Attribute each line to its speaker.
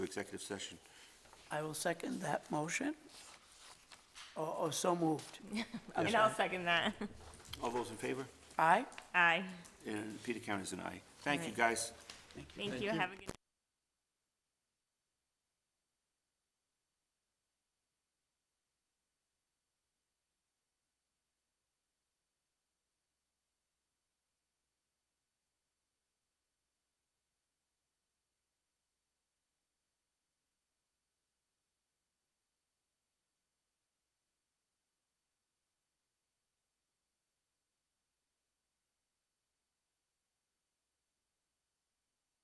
Speaker 1: executive session.
Speaker 2: I will second that motion. Or, or so moved.
Speaker 3: And I'll second that.
Speaker 1: All those in favor?
Speaker 2: Aye?
Speaker 3: Aye.
Speaker 1: And Peter Count is an aye. Thank you,
Speaker 3: Right.
Speaker 1: guys.
Speaker 3: Thank you. Have a good